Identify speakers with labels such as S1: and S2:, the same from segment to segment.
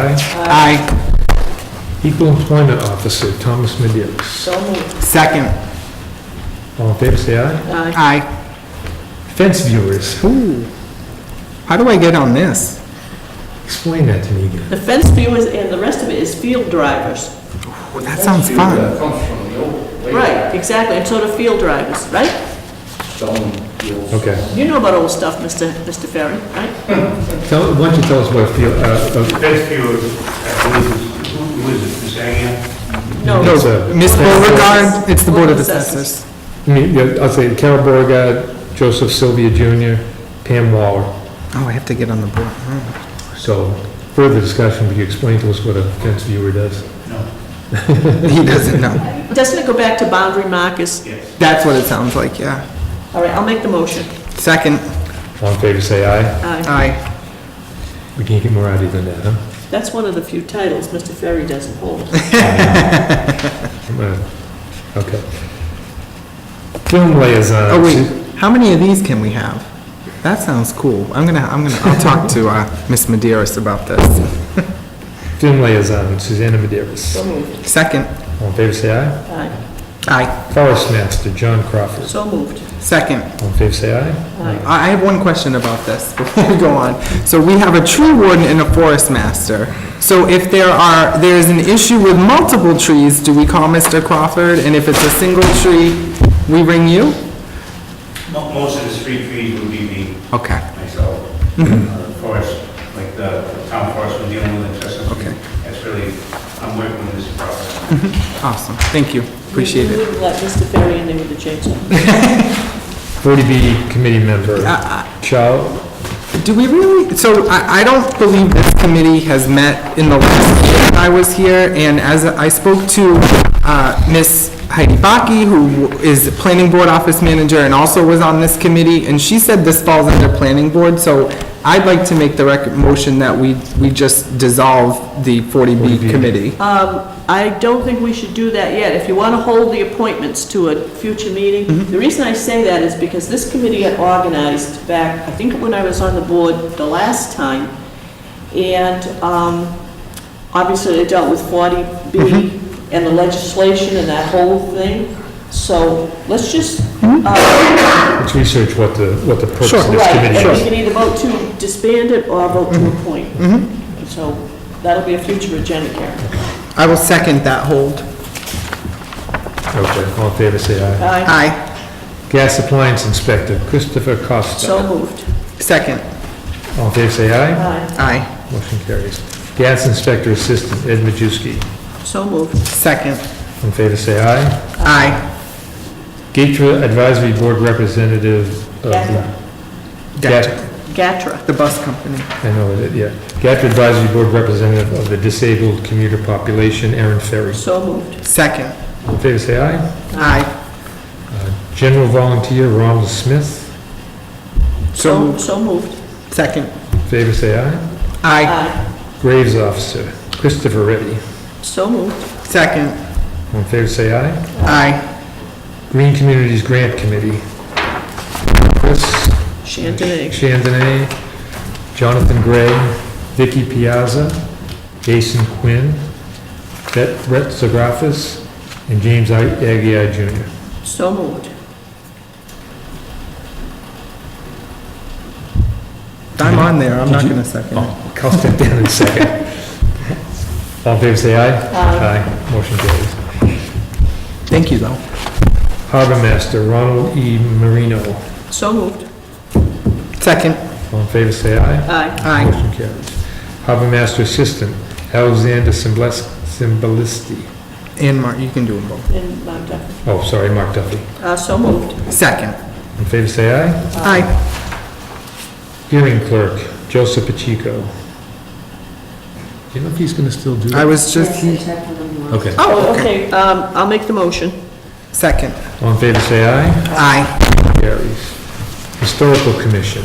S1: Aye.
S2: Aye.
S1: Equal Employment Officer, Thomas Medios.
S3: So moved.
S2: Second.
S1: All in favor, say aye.
S3: Aye.
S2: Aye.
S1: Fence viewers,
S2: Ooh. How do I get on this?
S1: explain that to me again.
S3: The fence viewers and the rest of it is field drivers.
S2: Ooh, That sounds fun.
S4: That comes from the old way
S3: Right, exactly, and so do field drivers, right?
S4: stone deals.
S1: Okay.
S3: You know about old stuff, Mr. Mr. Ferry, right?
S1: Tell, why don't you tell us what field, uh, uh,
S5: Best view of, I believe, who who is it, Ms. Angia?
S1: No,
S2: No,
S1: it's a-
S2: Miss Beauregard, it's the Board of
S3: Board of Assessors.
S2: Assessors.
S1: I mean, yeah, I'll say Carol Beauregard, Joseph Sylvia Jr., Pam Waller.
S2: Oh, I have to get on the board. Hmm.
S1: So further discussion, would you explain to us what a fence viewer does?
S2: He doesn't know.
S3: Doesn't it go back to boundary markers?
S5: Yes.
S2: That's what it sounds like, yeah.
S3: All right, I'll make the motion.
S2: Second.
S1: All in favor, say aye.
S3: Aye.
S2: Aye.
S1: We can't get more out of you than that, huh?
S3: That's one of the few titles Mr. Ferry doesn't hold.
S1: I'm gonna- Okay. Film liaison.
S2: Oh, wait, how many of these can we have? That sounds cool. I'm gonna, I'm gonna, I'll talk to, uh, Miss Maderas about this.
S1: Film liaison, Susanna Maderas.
S3: So moved.
S2: Second.
S1: All in favor, say aye.
S3: Aye.
S2: Aye.
S1: Forest Master, John Crawford.
S3: So moved.
S2: Second.
S1: All in favor, say aye.
S2: I I have one question about this before we go on. So we have a tree warden and a forest master. So if there are, there is an issue with multiple trees, do we call Mr. Crawford? And if it's a single tree, we ring you?
S5: Mo- Most of the street trees would be me,
S2: Okay,
S5: myself. Uh, Forest, like the town forest, we're dealing with in Chestnut Street.
S2: Okay.
S5: That's really, I'm working with this problem.
S2: awesome, thank you, appreciate
S3: You
S2: it.
S3: wouldn't let Mr. Ferry in there with the chainsaw.
S1: 40B Committee Member,
S3: Uh,
S1: Chow,
S2: Do we really, so I, I don't believe this committee has met in the last year that I was here, and as I spoke to, uh, Ms. Heidi Baki, who is Planning Board Office Manager and also was on this committee, and she said this falls under Planning Board, so I'd like to make the rec, motion that we, we just dissolve the 40B committee.
S3: Um, I don't think we should do that yet. If you want to hold the appointments to a future meeting, the reason I say that is because this committee had organized back, I think when I was on the board the last time, and um, obviously they dealt with 40B and the legislation and that whole thing. So let's just, uh,
S1: let's research what the, what the purpose of this
S3: right,
S1: committee
S3: and we
S1: is.
S3: can either vote to disband it or vote to appoint. So that'll be a future agenda, Karen.
S2: I will second that hold.
S1: Okay, all in favor, say aye.
S3: Aye.
S2: Aye,
S1: Gas Appliance Inspector, Christopher Costa.
S3: So moved.
S2: second,
S1: All in favor, say aye.
S3: Aye.
S2: aye,
S1: Motion carries. Gas Inspector Assistant, Ed Majewski.
S3: So moved.
S2: second,
S1: All in favor, say aye.
S2: aye.
S1: Gatra Advisory Board Representative of the...
S2: Gatra.
S1: Gat-
S3: Gatra.
S2: The bus company.
S1: I know, it, yeah. Gatra Advisory Board Representative of the Disabled Commuter Population, Aaron Ferry.
S3: So moved.
S2: Second,
S1: All in favor, say aye.
S2: aye.
S1: General Volunteer Ronald Smith.
S2: So-
S3: So, so moved.
S2: Second.
S1: All in favor, say aye.
S2: Aye.
S3: Aye.
S1: Graves Officer, Christopher Reddy.
S3: So moved.
S2: Second.
S1: All in favor, say aye.
S2: Aye.
S1: Green Communities Grant Committee. Chris
S3: Chantilly.
S1: Chandonay, Jonathan Gray, Vicky Piazza, Jason Quinn, Bet- Brett Zagrafis, and James I- Aguirre Jr.
S3: So moved.
S2: I'm on there, I'm not
S1: Did you-
S2: gonna second it.
S1: I'll step down in a second. All in favor, say aye. Aye. Motion carries.
S2: Thank you, though.
S1: Harbor Master, Ronald E. Marino.
S3: So moved.
S2: Second.
S1: All in favor, say aye.
S3: Aye.
S2: Aye.
S1: Motion carries. Harbor Master Assistant, Alexander Simbles- Simbalisti.
S2: And Mark, you can do them both.
S3: And Mark Duffy.
S1: Oh, sorry, Mark Duffy.
S3: Uh, so moved.
S2: Second.
S1: All In favor, say aye.
S2: Aye.
S1: Hearing clerk, Joseph Pacheco. Do you know if he's going to still do
S2: I
S1: that?
S2: was just,
S1: Okay.
S3: Oh, okay, um, I'll make the motion.
S2: second.
S1: All in favor, say aye.
S2: Aye.
S1: Carries. Historical Commission,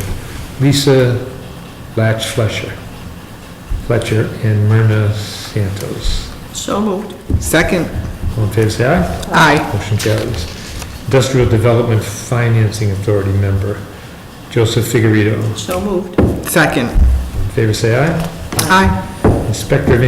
S1: Lisa Latch Fletcher, Fletcher and Myrna Santos.
S3: So moved.
S2: Second.
S1: All in favor, say aye.
S2: Aye.
S1: Motion carries. Industrial Development Financing Authority member, Joseph Figurito.
S3: So moved.
S2: Second.
S1: All in favor, say aye.
S2: Aye.
S1: Inspector of